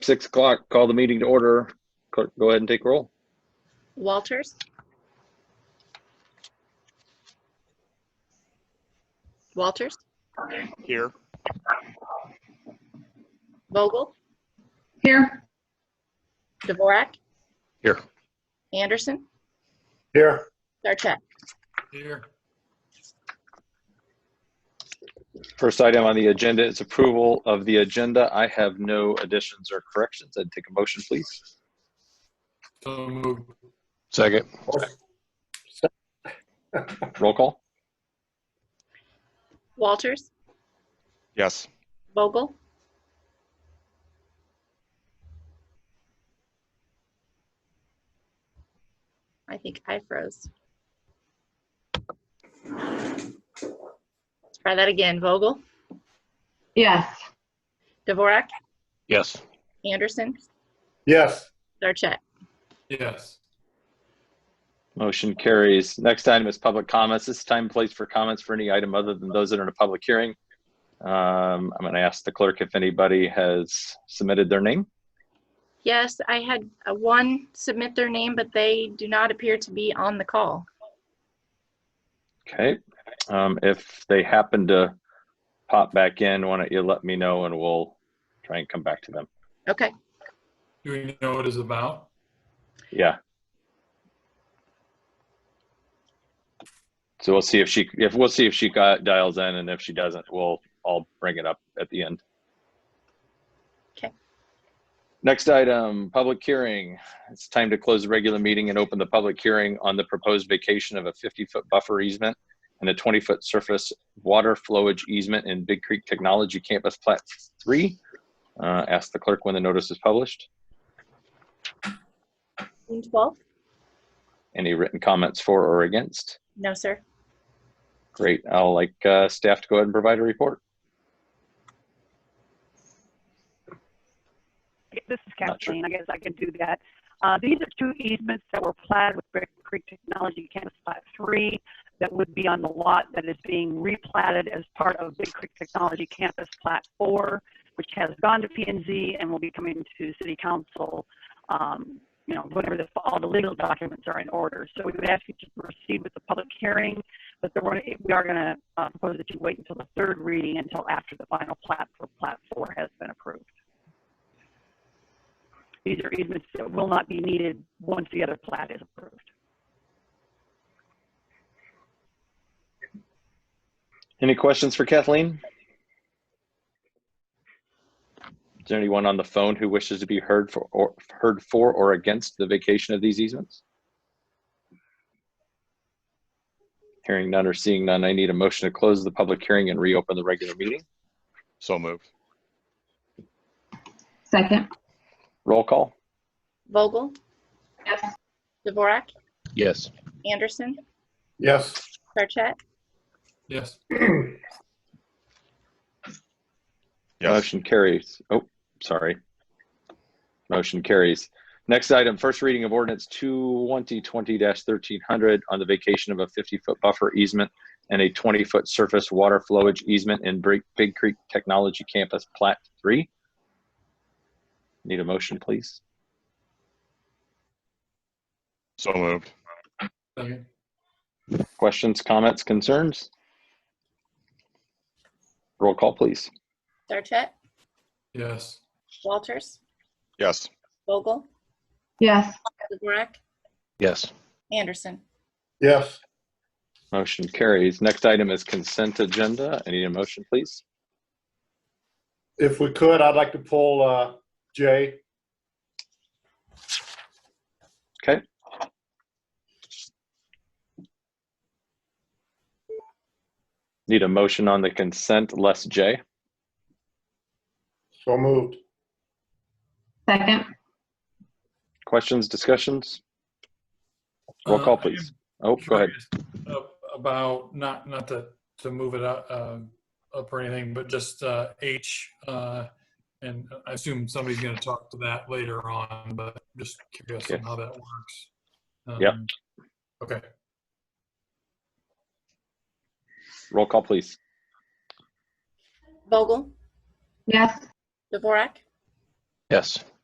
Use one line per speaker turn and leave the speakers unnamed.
six o'clock, call the meeting to order. Clerk, go ahead and take roll.
Walters? Walters?
Here.
Vogel?
Here.
Dvorak?
Here.
Anderson?
Here.
Sarchet?
Here,
First item on the agenda is approval of the agenda. I have no additions or corrections. I'd take a motion, please.
so moved.
Second.
Roll call.
Walters?
Yes.
Vogel? I think I froze. Let's try that again. Vogel?
Yes.
Dvorak?
Yes.
Anderson?
Yes.
Sarchet?
Yes,
Motion carries. Next item is public comments. This is time and place for comments for any item other than those that are in a public hearing. Um, I'm going to ask the clerk if anybody has submitted their name.
Yes, I had uh, one submit their name, but they do not appear to be on the call.
Okay. Um, if they happen to pop back in, why don't you let me know and we'll try and come back to them.
Okay,
do we know what it's about?
Yeah. So we'll see if she, if we'll see if she got- dials in and if she doesn't, we'll, I'll bring it up at the end.
Okay.
Next item, public hearing. It's time to close the regular meeting and open the public hearing on the proposed vacation of a 50-foot buffer easement and a 20-foot surface water flowage easement in Big Creek Technology Campus Plat 3. Uh, Ask the clerk when the notice is published.
June 12th?
Any written comments for or against?
No, sir.
Great. I'll like uh, staff to go ahead and provide a report.
This is
Not sure.
Kathleen, I guess I can do that. Uh, these are two easements that were platted with Brick Creek Technology Campus Plat Three that would be on the lot that is being replatted as part of Big Creek Technology Campus Plat Four, which has gone to P and Z and will be coming to City Council, um, you know, whenever the, all the legal documents are in order. So we would ask you to proceed with the public hearing, but there were, we are gonna, uh, propose that you wait until the third reading until after the final plat for Plat Four has been approved. These are easements that will not be needed once the other plat is approved.
Any questions for Kathleen? Is there anyone on the phone who wishes to be heard for or heard for or against the vacation of these easements? Hearing none or seeing none, I need a motion to close the public hearing and reopen the regular meeting.
So moved.
Second.
Roll call.
Vogel?
Yes.
Dvorak?
Yes.
Anderson?
Yes.
Sarchet?
Yes,
Yes.
Motion carries. Oh, sorry. Motion carries. Next item, first reading of ordinance 2020-1300 on the vacation of a 50-foot buffer easement and a 20-foot surface water flowage easement in Big Big Creek Technology Campus Plat 3. Need a motion, please?
So moved.
second,
Questions, comments, concerns? Roll call, please.
Sarchet?
yes,
Walters?
Yes.
Vogel?
Yes.
Dvorak?
Yes.
Anderson?
Yes.
Motion carries. Next item is consent agenda. I need a motion, please.
If we could, I'd like to pull uh, J.
Okay. Need a motion on the consent less J.
So moved.
Second.
Questions, discussions? Roll
Uh,
call,
I am
please. Oh, go ahead.
Uh, about, not, not to, to move it up, um, up or anything, but just uh, H, uh, and I assume somebody's going to talk to that later on, but just curious on
Okay.
how that works.
Yep.
Um, Okay,
Roll call, please.
Vogel?
Yes.
Dvorak?
Yes.